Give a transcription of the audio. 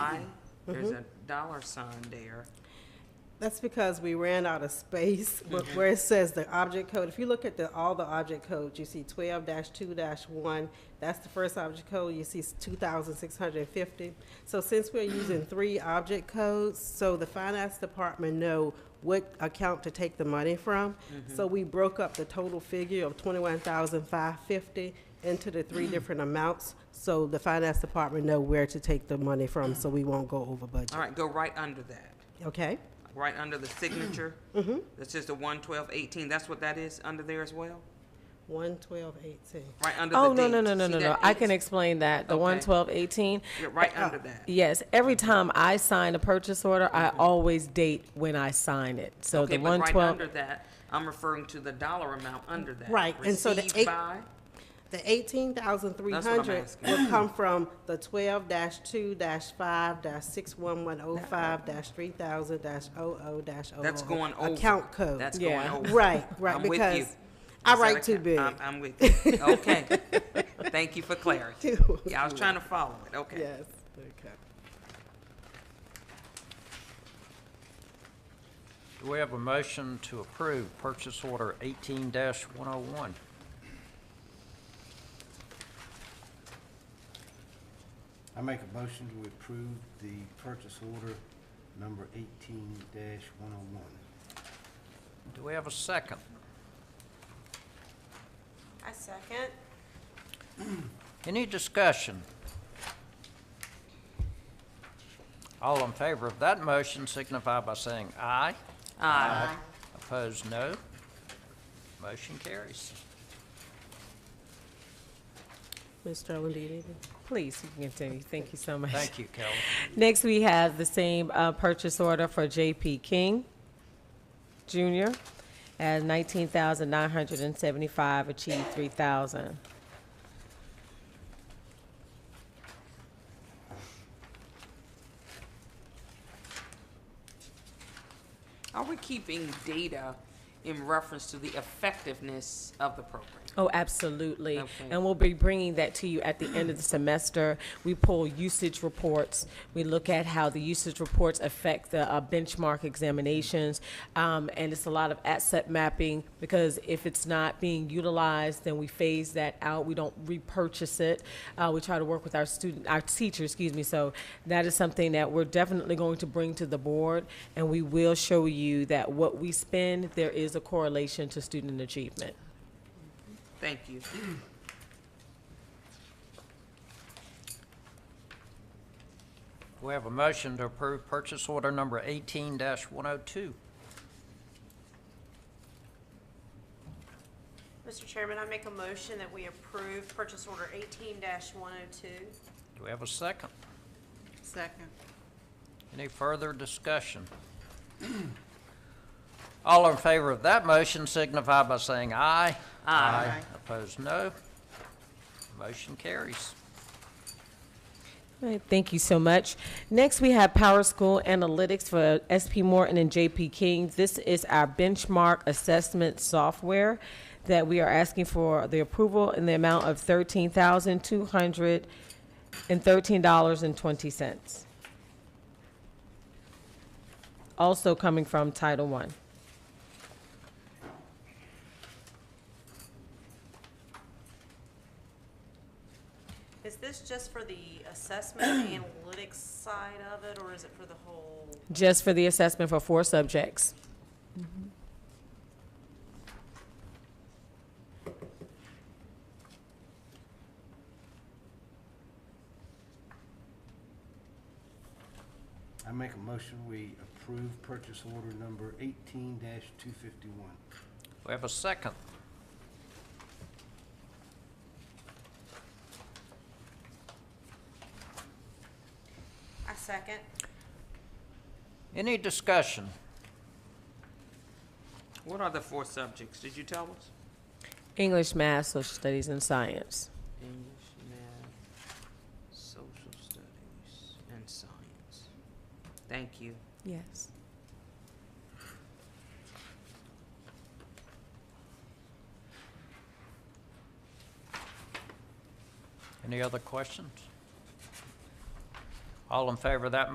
why there's a dollar sign there. That's because we ran out of space, but where it says the object code, if you look at the, all the object codes, you see twelve two one, that's the first object code, you see two thousand six hundred and fifty. So since we're using three object codes, so the finance department know what account to take the money from. So we broke up the total figure of twenty-one thousand five fifty into the three different amounts, so the finance department know where to take the money from, so we won't go over budget, All right, go right under that, okay? right under the signature. Mm-hmm. That's just the one twelve eighteen, that's what that is under there as well? One twelve eighteen. Right under the Oh, no, date. no, no, no, See no, no. that I eight? can explain that. The Okay. one twelve eighteen. Yeah, right under that. Yes, every time I sign a purchase order, I always date when I sign it. So Mm-hmm. Okay, the but one right twelve, under that, I'm referring to the dollar amount under that. Right, and so the Received eight- by, The eighteen thousand three hundred asking. will come from the twelve two five six one one oh five three thousand 0 that's going over. Account code. That's going Yeah. over. Right, right, I'm with you. because I Is that write account- too big. I'm, I'm with you. Okay. Thank you for clarity. Too- Yeah, I was trying to follow it. Okay. Yes, okay. Do we have a motion to approve purchase order eighteen one oh one? I make a motion to approve the purchase order number eighteen one oh one. Do we have a second? I second. Any discussion? All in favor of that motion signify by saying aye. Aye. Opposed, no. Motion carries. Ms. Sterling, do you need it? please, you can continue. Thank you so much. Thank you, Kelly. Next, we have the same uh, purchase order for J.P. King Jr. at nineteen thousand nine hundred and seventy-five, achieved three thousand. Are we keeping data in reference to the effectiveness of the program? Oh, absolutely. Okay. And we'll be bringing that to you at the end of the semester. We pull usage reports. We look at how the usage reports affect the uh, benchmark examinations. Um, and it's a lot of asset mapping because if it's not being utilized, then we phase that out. We don't repurchase it. Uh, we try to work with our student, our teachers, excuse me. So that is something that we're definitely going to bring to the board. And we will show you that what we spend, there is a correlation to student achievement. Thank you. Do we have a motion to approve purchase order number eighteen one oh two? Mr. Chairman, I make a motion that we approve purchase order eighteen one oh two. Do we have a second? Second. Any further discussion? All in favor of that motion signify by saying aye. Aye. Opposed, no. Motion carries. All right, thank you so much. Next, we have Power School Analytics for SP Morton and JP King. This is our benchmark assessment software that we are asking for the approval in the amount of thirteen thousand two hundred and thirteen dollars and twenty cents. Also coming from Title One. Is this just for the assessment and analytics side of it, or is it for the whole? just for the assessment for four subjects. I make a motion we approve purchase order number eighteen two fifty-one. We have a second. I second. Any discussion? What are the four subjects? Did you tell us? English, math, social studies, and science. English, math, social studies, and science. Thank you. Yes. Any other questions? All in favor of that